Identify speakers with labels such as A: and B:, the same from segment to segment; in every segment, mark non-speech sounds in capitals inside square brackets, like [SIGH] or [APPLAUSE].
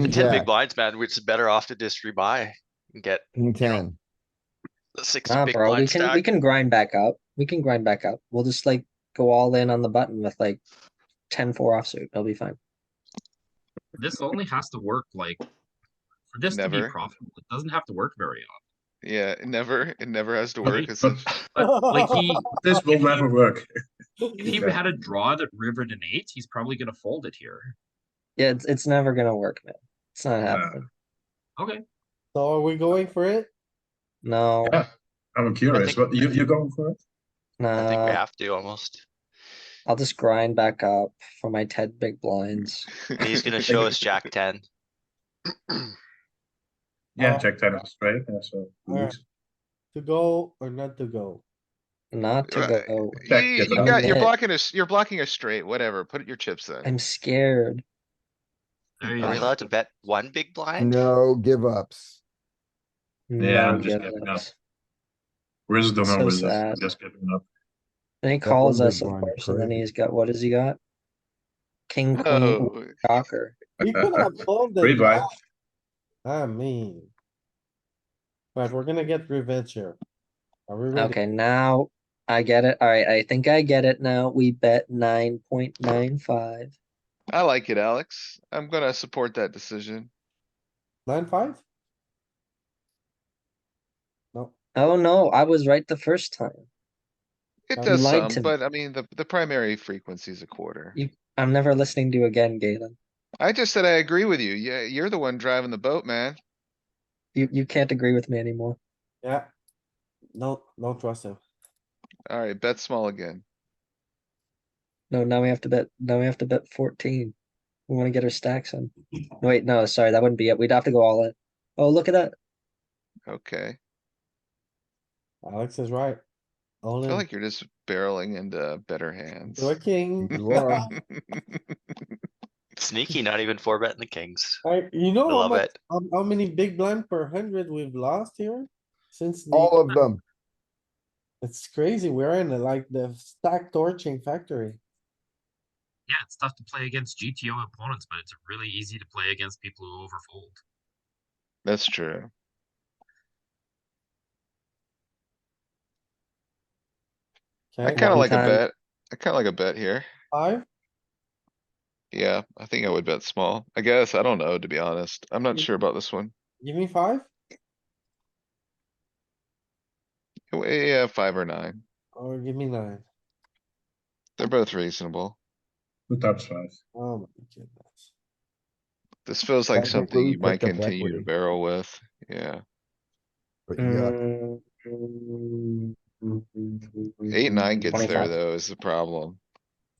A: King
B: ten
A: jack,
B: big blinds, man, which is better off to just rebuy and get
A: king ten.
B: the six
C: Nah,
B: big
C: bro, we
B: blind
C: can, we
B: stack.
C: can grind back up. We can grind back up. We'll just like go all in on the button with like 10-4 offsuit. It'll be fine.
D: This only has to work like for this to be
E: Never.
D: profitable. It doesn't have to work very
E: Yeah, it never, it never has to
D: But-
E: work. It's [LAUGHS]
D: but-
E: a-
D: often. Like he,
F: This will never work.
C: [LAUGHS]
D: if he had a draw that rivered an eight, he's probably gonna fold it here.
C: Yeah, it's, it's never gonna work, man. It's not happening.
D: Okay,
A: So are we going for it?
C: No,
F: Yeah. I'm curious,
B: think-
F: but you, you're going for it?
B: I think we
C: no.
B: have to almost.
C: I'll just grind back up for my ten big blinds.
B: And He's gonna show
E: [LAUGHS]
B: us
C: [LAUGHS]
B: jack ten.
F: Yeah,
A: Uh,
F: check ten is straight, yeah, so.
A: Yeah. To go or not to go?
C: Not to
E: Right.
C: go.
E: You,
F: Check
E: you
F: it
C: out.
E: got, you're
C: Yeah.
E: blocking us, you're blocking us straight, whatever. Put your chips in.
C: I'm scared.
D: there you
B: Are we
D: go.
B: allowed to bet one big blind?
A: No give ups.
F: Yeah, I'm
C: No
F: just
C: give
F: giving up.
C: ups.
F: Wisdom
C: So
F: and wisdom,
C: sad.
F: just giving up.
C: Then he
A: That
C: calls
A: one big
C: us, of
A: blind,
C: course, and then
A: crazy.
C: he's got, what has he got? King, queen,
E: Oh,
C: cocker.
G: [LAUGHS]
A: You could
C: uh,
F: [LAUGHS]
A: have folded.
F: Rebuy.
A: that. I mean. But we're gonna get revenge here. Are we ready?
C: Okay, now I get it. Alright, I think I get it now. We bet nine point nine five.
E: I like it, Alex. I'm gonna support that decision.
A: Nine, five? No,
C: Oh no, I was right the first time.
E: It
C: Um,
E: does
C: lied
E: some,
C: to me.
E: but I mean, the, the primary frequency is a quarter.
C: You- I'm never listening to you again, Galen.
E: I just said I agree with you. Yeah, you're the one driving the boat, man.
C: You, you can't agree with me anymore.
A: yeah. No, no trust him.
E: Alright, bet small again.
C: No, now we have to bet, now we have to bet fourteen. We wanna get our stacks in. Wait, no, sorry, that wouldn't be it. We'd have to go all in. Oh, look at that.
E: Okay.
A: Alex is right.
E: I
A: All
E: feel
A: in.
E: like you're just barreling into better hands. [LAUGHS]
A: You're a king.
E: You are.
B: Sneaky, not even four betting the kings.
A: I, you know
B: I
A: how
B: love
A: much,
B: it.
A: how, how many big blind per hundred we've lost here? Since, the-
G: All of them.
A: it's crazy. We're in like the stack torching factory.
D: Yeah, it's tough to play against GTO opponents, but it's really easy to play against people who overfold.
E: That's true. I
A: Okay,
E: kinda like a
C: time.
E: bet. I kinda like a bet here.
A: five,
E: Yeah, I think I would bet small. I guess, I don't know, to be honest. I'm not
A: Mm.
E: sure about this one.
A: give me five.
E: Oh, eh, Yeah, five or nine.
A: Or give me nine.
E: They're both reasonable.
F: Two times five.
A: Oh my goodness.
E: This feels like
G: Technically,
E: something you
G: put
E: might
G: the back
E: continue to
G: wheel.
E: barrel with. Yeah,
G: But you
C: Mm.
G: got
C: mm,
E: eight, nine gets there
C: 25.
E: though is the problem.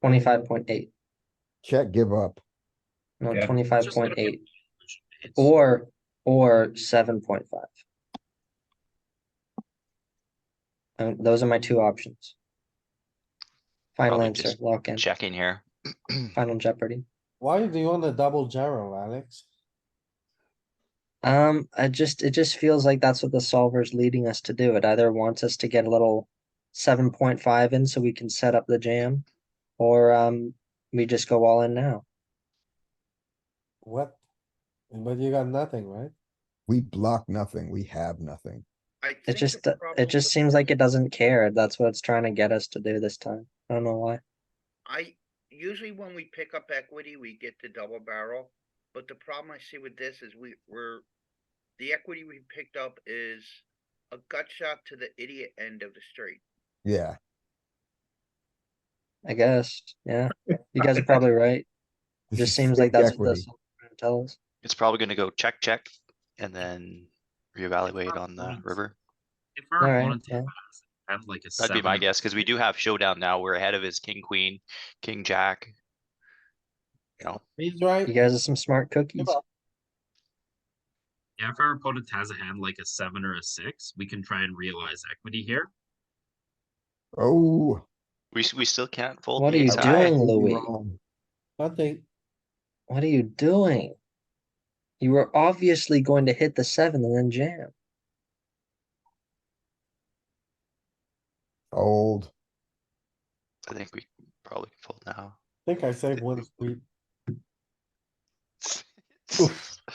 C: Twenty-five point eight,
G: check, give up.
C: no,
F: Yeah.
C: twenty-five
D: Just
C: point
D: gonna be-
C: eight, or, or seven point five. Um, those are my two options. Final
B: Probably
C: answer,
B: just
C: lock in,
B: Checking here.
C: final Jeopardy.
A: Why do you want a double gyro, Alex?
C: Um, I just, it just feels like that's what the solver's leading us to do. It either wants us to get a little seven point five in so we can set up the jam, or, um, we just go all in now.
A: What? But you got nothing, right?
G: We block nothing. We have nothing.
C: It just, it just seems like it doesn't care. That's what it's trying to get us to do this time. I don't know why.
H: I, usually when we pick up equity, we get the double barrel, but the problem I see with this is we, we're. The equity we picked up is a gut shot to the idiot end of the street.
G: Yeah,
C: I guess, yeah. You guys are probably right. It
G: This
C: just
G: is
C: seems like
G: fake
C: that's what
G: equity.
C: this tell us.
B: It's probably gonna go check, check, and then reevaluate on the river.
D: If our
C: Alright,
D: opponent
C: yeah.
D: had like a
B: That'd
D: seven,
B: be my guess, cuz we do have showdown now. We're ahead of his king, queen, king, jack. You know,
A: He's right.
C: You guys are some smart cookies.
A: up.
D: Yeah, if our opponent has a hand like a seven or a six, we can try and realize equity here.
G: Oh.
B: we, s- we still can't fold.
C: What
B: the
C: are you
B: ace high.
C: doing,
G: you're
C: Louis?
G: wrong.
A: Nothing.
C: What are you doing? You were obviously going to hit the seven and then jam.
G: Old.
B: I think we probably can fold now. [LAUGHS]
A: I think I saved one sweet.